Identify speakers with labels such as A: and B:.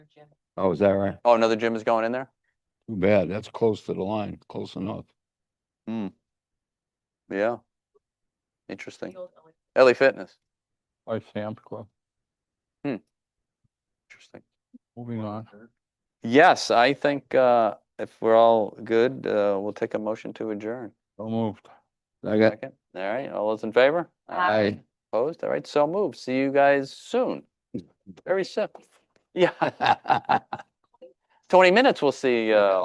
A: gym.
B: Oh, is that right?
C: Oh, another gym is going in there?
B: Too bad. That's close to the line, close enough.
C: Yeah. Interesting.
A: The old LA.
C: LA Fitness,
D: by Sam's Club.
C: interesting.
D: Moving on.
C: Yes, I think, uh, if we're all good, uh, we'll take a motion to adjourn.
D: So moved.
B: I got,
C: Second, all right, all those in favor?
A: Aye.
B: I,
C: Opposed, all right, so moved. See you guys soon. Very simple. Yeah. Twenty minutes, we'll see, uh,